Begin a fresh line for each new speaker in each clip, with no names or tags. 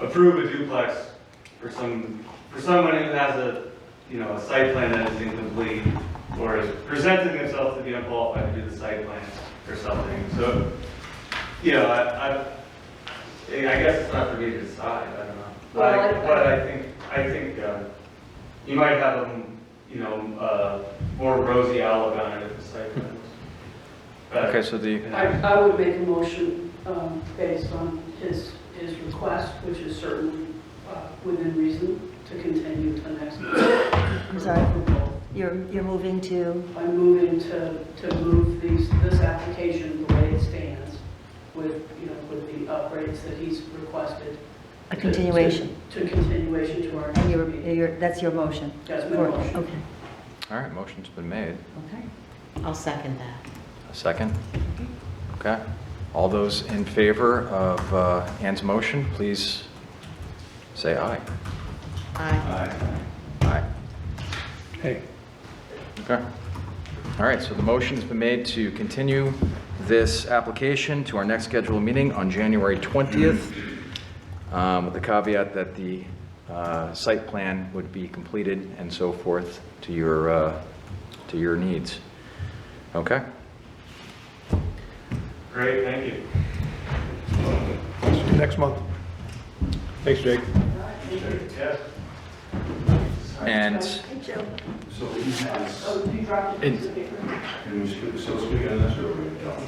approve a duplex for some, for someone who has a, you know, a site plan that is incomplete or is presenting themselves to be unqualified to do the site plan or something. So, you know, I, I, I guess it's not for me to decide, I don't know. But I,
Well, I-
but I think, I think, uh, you might have a, you know, uh, more rosy outlook on it if the site plan was. better.
Okay, so the,
I, I would make a motion um, based on his, his request, which is certainly uh, within reason, to continue to next. I'm
sorry. You're, you're moving to,
I'm moving to, to move these, this application the way it stands with, you know, with the upgrades that he's requested.
A
to-
continuation.
To to continuation to our next
and you're,
meeting.
you're, that's your motion?
That's my
For-
motion.
Okay,
all right, motion's been made.
okay.
I'll second that.
A second? Okay. All those in favor of uh, Ann's motion, please say aye.
Aye.
Aye.
Aye.
Hey,
Okay. All right, so the motion's been made to continue this application to our next scheduled meeting on January 20th, um, with the caveat that the uh, site plan would be completed and so forth to your, uh, to your needs. Okay?
Great, thank you.
next month. Thanks, Jake.
Yes.
And
Hey, Joe.
So he has,
Oh, you dropped a piece of paper?
can we speak, so speak on this or we don't?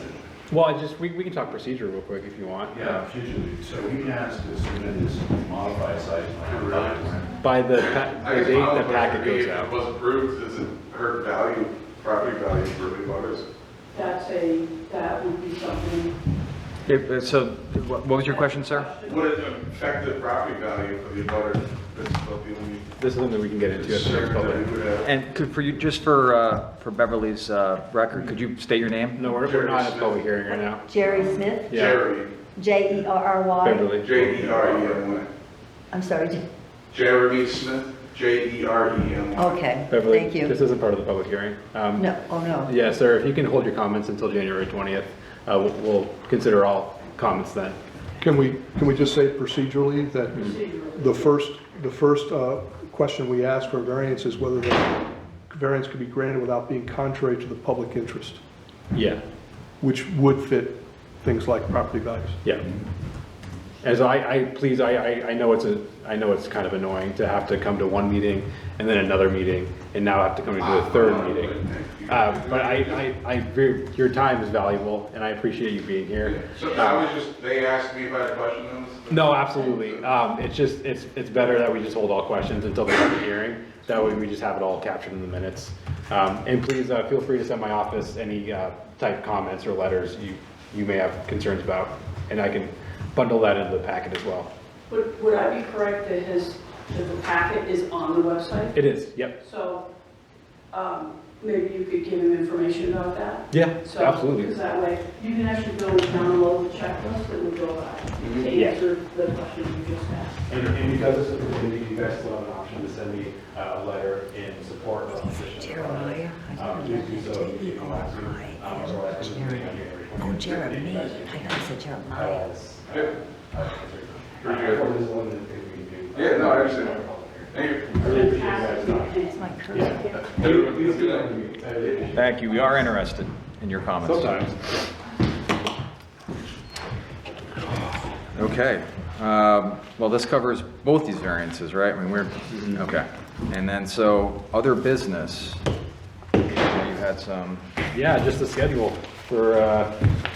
Well, I just, we, we can talk procedure real quick if you want.
Yeah, usually, so he has to submit his modified site plan. right?
By the, pa-
I
the
guess
date
my
the
only question
packet
would be,
goes
if it
out.
was approved, does it hurt value, property value for the butters?
That's a, that would be something.
Yeah, So what what was your question, sir?
Would it affect the property value of the butters? That's about the only
This is something we can get into at the next
concern that
public.
we would have.
And could, for you, just for, uh, for Beverly's, uh, record, could you state your name?
No, we're, we're not at a public hearing right now.
Jerry Smith,
Yeah.
Jerry,
J E R R Y.
Beverly.
J E R E M Y.
I'm sorry, J-
Jeremy Smith, J E R E M Y.
okay,
Beverly,
thank
This
you.
isn't part of the public hearing. Um,
No, oh, no.
Yeah, sir, if you can hold your comments until January 20th, uh, we'll, we'll consider all comments then.
Can we, can we just say procedurally that the first, the first uh, question we ask for variance is whether the variance could be granted without being contrary to the public interest,
Yeah,
which would fit things like property values?
yeah. As I, I, please, I, I, I know it's a, I know it's kind of annoying to have to come to one meeting and then another meeting, and now have to come to a
Ah.
third meeting. Uh, But I, I, I, agree, your time is valuable, and I appreciate you being here. Um,
So I was just, they asked me if I had a question on this.
No, absolutely. Um, It's just, it's, it's better that we just hold all questions until the public hearing. That way we just have it all captured in the minutes. Um, And please uh, feel free to send my office any uh, type comments or letters you, you may have concerns about. And I can bundle that into the packet as well.
Would, would I be correct that his, that the packet is on the website?
It is, yep.
So, um, maybe you could give him information about that?
Yeah,
So- Because
absolutely.
that way, you can actually go and download the checklist that would go by
Mm-hmm.
to
Yeah.
answer the questions you just asked.
And, and because this is a committee, you guys still have an option to send me uh, a letter in support or opposition.
Jeremiah.
Um, Please do so if you come back
E
to, um, or like, on January 20th.
Oh, Jeremy, I
Uh,
thought you said Jeremiah.
it's-
Yeah.
uh,
Appreciate it.
Or there's a limited thing we can do.
Yeah, no, I understand. Thank you.
I really appreciate you guys' time.
Fantastic.
It's my cursor.
Everyone, please do that.
I really appreciate it.
Thank you, we are interested in your comments.
Sometimes.
Okay, um, well, this covers both these variances, right? I mean, we're,
Mm-hmm.
okay. And then, so, other business, you had some,
Yeah, just the schedule for, uh,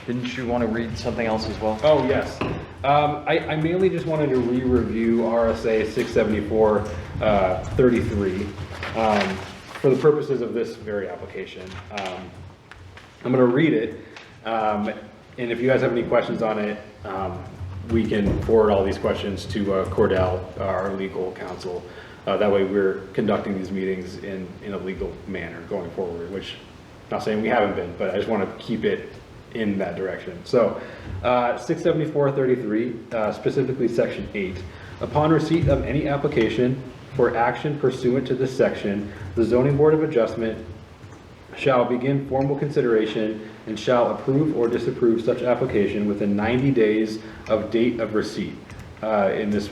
didn't you want to read something else as well?
Oh, yes. Um, I, I mainly just wanted to re-review RSA 674, uh, 33, um, for the purposes of this very application. Um, I'm gonna read it, um, and if you guys have any questions on it, um, we can forward all these questions to uh, Cordell, our legal counsel. Uh, that way we're conducting these meetings in, in a legal manner going forward, which, not saying we haven't been, but I just wanna keep it in that direction. So, uh, 67433, uh, specifically Section 8. Upon receipt of any application for action pursuant to this section, the zoning board of adjustment shall begin formal consideration and shall approve or disapprove such application within 90 days of date of receipt. Uh, In this